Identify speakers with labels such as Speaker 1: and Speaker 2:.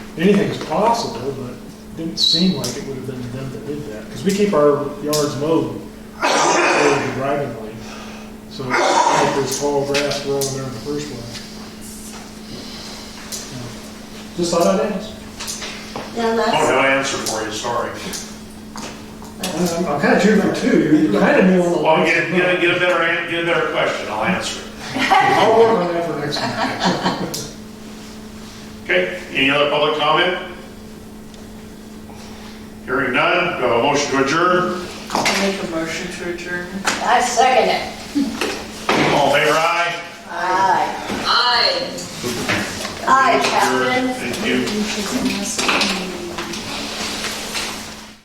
Speaker 1: anything's possible, but it didn't seem like it would have been them that did that. Because we keep our yards mowed over the driving lane. So it's not like there's tall grass growing there in the first place. Yeah. Just thought I'd ask.
Speaker 2: Now,
Speaker 3: Don't
Speaker 2: that's,
Speaker 3: have an Oh, answer for you, sorry.
Speaker 2: that's,
Speaker 1: I'm kind of choosing two. You kind of knew on the.
Speaker 3: Well, get, get a, get a better, an- get a better question, I'll answer it.
Speaker 1: I'll work on that for next time.
Speaker 3: Okay, any other public comment? Hearing none, do I have a motion to adjourn?
Speaker 4: I'll make a motion to adjourn.
Speaker 2: I second it.
Speaker 3: All in favor, aye?
Speaker 2: Aye. Aye. Aye, Captain.
Speaker 3: Thank you.
Speaker 5: Which is a must.